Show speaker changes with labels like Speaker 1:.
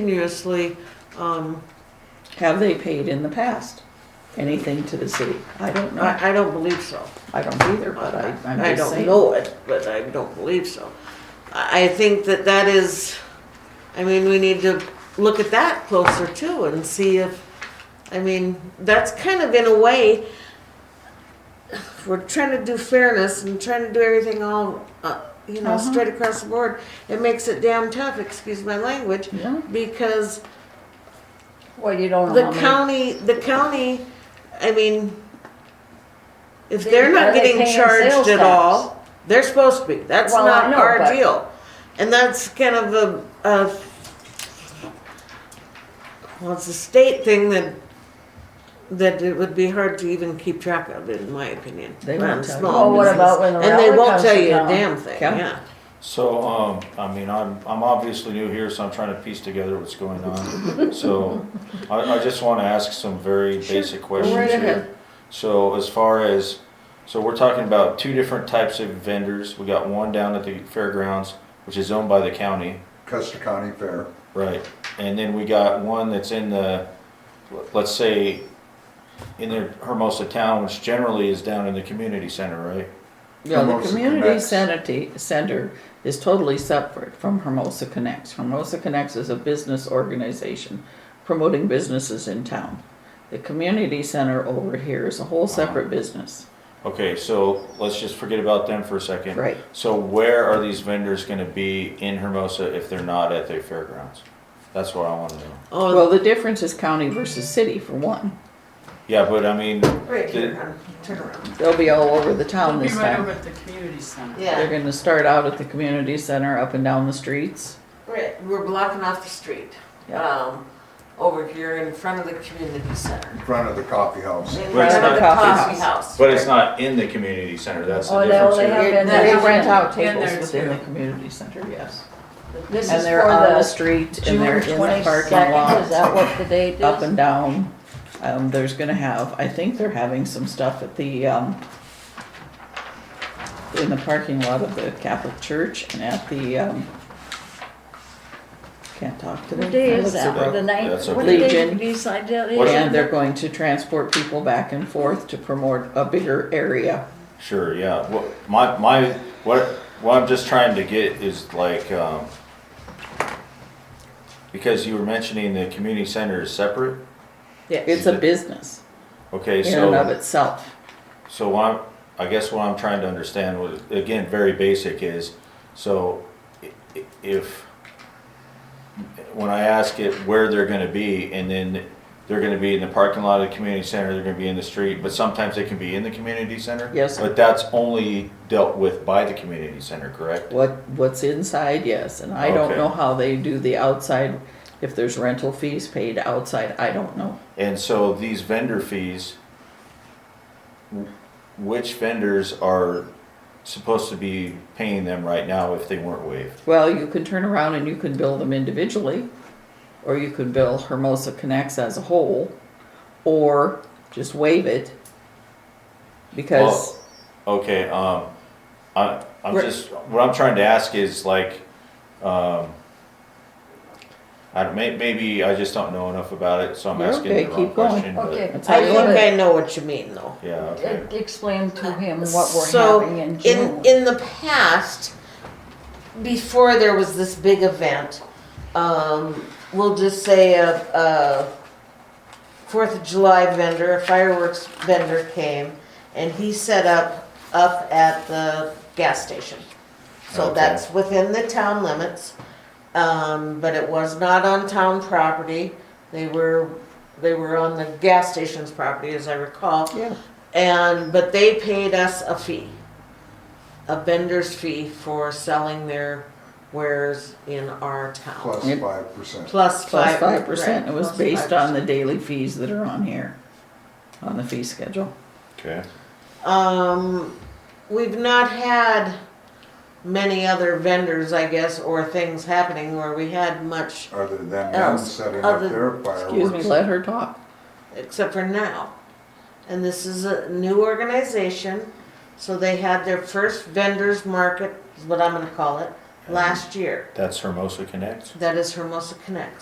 Speaker 1: continuously, um,
Speaker 2: Have they paid in the past anything to the city? I don't know.
Speaker 1: I, I don't believe so.
Speaker 2: I don't either, but I, I'm
Speaker 1: I
Speaker 2: just
Speaker 1: don't
Speaker 2: saying.
Speaker 1: know it, but I don't believe so. I, I think that that is, I mean, we need to look at that closer too and see if, I mean, that's kind of in a way, we're trying to do fairness and trying to do everything all, uh, you know,
Speaker 2: Uh-huh.
Speaker 1: straight across the board. It makes it damn tough, excuse my language,
Speaker 2: Yeah.
Speaker 1: because
Speaker 3: Well, you don't know
Speaker 1: The
Speaker 3: how
Speaker 1: county,
Speaker 3: many.
Speaker 1: the county, I mean, if
Speaker 3: They-
Speaker 1: they're
Speaker 3: are
Speaker 1: not
Speaker 3: they
Speaker 1: getting
Speaker 3: paying
Speaker 1: charged
Speaker 3: sales
Speaker 1: at
Speaker 3: tax?
Speaker 1: all, they're supposed to be. That's
Speaker 3: Well, I
Speaker 1: not
Speaker 3: know,
Speaker 1: our
Speaker 3: but-
Speaker 1: deal. And that's kind of a, a, well, it's a state thing that, that it would be hard to even keep track of, in my opinion.
Speaker 2: They
Speaker 1: on
Speaker 2: won't tell you.
Speaker 1: small
Speaker 2: Well, what
Speaker 1: business.
Speaker 3: about when the
Speaker 1: And they
Speaker 3: railroad
Speaker 1: won't
Speaker 3: comes
Speaker 1: tell you a
Speaker 3: down?
Speaker 1: damn thing,
Speaker 2: Yeah.
Speaker 1: yeah.
Speaker 4: So, um, I mean, I'm, I'm obviously new here, so I'm trying to piece together what's going on. So, I, I just wanna ask some very basic questions here. So as far as, so we're talking about two different types of vendors. We got one down at the fairgrounds, which is owned by the county,
Speaker 5: Custer County Fair.
Speaker 4: right? And then we got one that's in the, let's say, in the Hermosa town, which generally is down in the community center, right?
Speaker 2: Yeah, the
Speaker 5: Hermosa
Speaker 2: community
Speaker 5: Connects.
Speaker 2: sanity center is totally separate from Hermosa Connects. Hermosa Connects is a business organization promoting businesses in town. The community center over here is a whole separate business.
Speaker 4: Okay, so let's just forget about them for a second.
Speaker 2: Right.
Speaker 4: So where are these vendors gonna be in Hermosa if they're not at the fairgrounds? That's what I wanna know.
Speaker 2: Well,
Speaker 1: Oh,
Speaker 2: the difference is county versus city for one.
Speaker 4: Yeah, but I mean,
Speaker 1: right here,
Speaker 4: the-
Speaker 1: hon, turn around.
Speaker 2: They'll be all over the town
Speaker 6: It'll be
Speaker 2: this
Speaker 6: right over
Speaker 2: time.
Speaker 6: at the community center.
Speaker 2: They're
Speaker 1: Yeah,
Speaker 2: gonna start out at the community center, up and down the streets.
Speaker 1: right, we're blocking off the street.
Speaker 2: Yeah.
Speaker 1: um, over here in front of the community center.
Speaker 5: in front of the coffee house.
Speaker 1: In
Speaker 4: But
Speaker 1: front
Speaker 4: it's
Speaker 1: of
Speaker 4: not
Speaker 1: the
Speaker 2: coffee
Speaker 1: coffee house.
Speaker 4: but it's not in the community center, that's the
Speaker 3: Oh, no,
Speaker 4: difference
Speaker 3: they
Speaker 4: here.
Speaker 3: have been
Speaker 1: They
Speaker 2: They
Speaker 3: there.
Speaker 2: rent out
Speaker 6: And
Speaker 2: tables
Speaker 6: there's
Speaker 2: within the
Speaker 6: two.
Speaker 2: community center, yes.
Speaker 3: This
Speaker 2: And
Speaker 3: is
Speaker 2: they're
Speaker 3: for
Speaker 2: on
Speaker 3: the
Speaker 2: the street and they're in
Speaker 3: June
Speaker 2: the parking
Speaker 3: 22nd,
Speaker 2: lot,
Speaker 3: Is that what the date is?
Speaker 2: up and down. Um, there's gonna have, I think they're having some stuff at the, um, in the parking lot of the Catholic Church and at the, um, can't talk
Speaker 3: What
Speaker 2: today.
Speaker 3: day
Speaker 2: My
Speaker 3: is
Speaker 2: lips are
Speaker 3: that? The
Speaker 2: broken.
Speaker 3: ninth?
Speaker 4: That's
Speaker 3: What
Speaker 2: okay.
Speaker 3: day
Speaker 2: Legion.
Speaker 3: beside that is?
Speaker 4: What is
Speaker 2: And they're going to transport people back and forth to promote a bigger area.
Speaker 4: Sure, yeah, what, my, my, what, what I'm just trying to get is like, um, because you were mentioning the community center is separate,
Speaker 2: It's a business
Speaker 4: okay,
Speaker 2: in
Speaker 4: so.
Speaker 2: and of itself.
Speaker 4: So what I'm, I guess what I'm trying to understand was, again, very basic is, so i- i- if, when I ask it where they're gonna be, and then they're gonna be in the parking lot of the community center, they're gonna be in the street, but sometimes they can be in the community center?
Speaker 2: Yes, sir.
Speaker 4: But that's only dealt with by the community center, correct?
Speaker 2: What, what's inside, yes, and I don't
Speaker 4: Okay.
Speaker 2: know how they do the outside, if there's rental fees paid outside, I don't know.
Speaker 4: And so these vendor fees, wh- which vendors are supposed to be paying them right now if they weren't waived?
Speaker 2: Well, you can turn around and you can bill them individually, or you could bill Hermosa Connects as a whole, or just waive it. Because,
Speaker 4: Okay, um, I, I'm
Speaker 2: We're-
Speaker 4: just, what I'm trying to ask is like, um, I don't, may, maybe I just don't know enough about it, so I'm
Speaker 2: You're
Speaker 4: asking
Speaker 2: okay,
Speaker 4: the wrong
Speaker 2: keep going.
Speaker 4: question, but-
Speaker 3: Okay.
Speaker 2: That's how
Speaker 1: I
Speaker 2: you
Speaker 1: think
Speaker 2: want
Speaker 1: I know what you mean though.
Speaker 4: Yeah, okay,
Speaker 3: E- Explain to him what we're
Speaker 1: So,
Speaker 3: having in
Speaker 1: in,
Speaker 3: June.
Speaker 1: in the past, before there was this big event, um, we'll just say a, a Fourth of July vendor, a fireworks vendor came and he set up, up at the gas station. So
Speaker 4: Okay.
Speaker 1: that's within the town limits, um, but it was not on town property. They were, they were on the gas station's property, as I recall.
Speaker 2: yeah,
Speaker 1: And, but they paid us a fee, a vendor's fee for selling their wares in our town.
Speaker 5: Plus
Speaker 2: Yep.
Speaker 5: five percent.
Speaker 1: Plus
Speaker 2: plus
Speaker 1: five.
Speaker 2: five percent,
Speaker 1: right,
Speaker 2: it was
Speaker 1: plus
Speaker 2: based on
Speaker 1: 5%.
Speaker 2: the daily fees that are on here, on the fee schedule.
Speaker 4: okay.
Speaker 1: Um, we've not had many other vendors, I guess, or things happening where we had much,
Speaker 5: Other than them
Speaker 1: Else,
Speaker 5: setting
Speaker 1: other-
Speaker 5: up their
Speaker 2: Excuse me,
Speaker 5: fireworks.
Speaker 2: let her talk.
Speaker 1: except for now. And this is a new organization, so they had their first vendors market, is what I'm gonna call it, last year.
Speaker 4: That's Hermosa Connect.
Speaker 1: That is Hermosa Connects.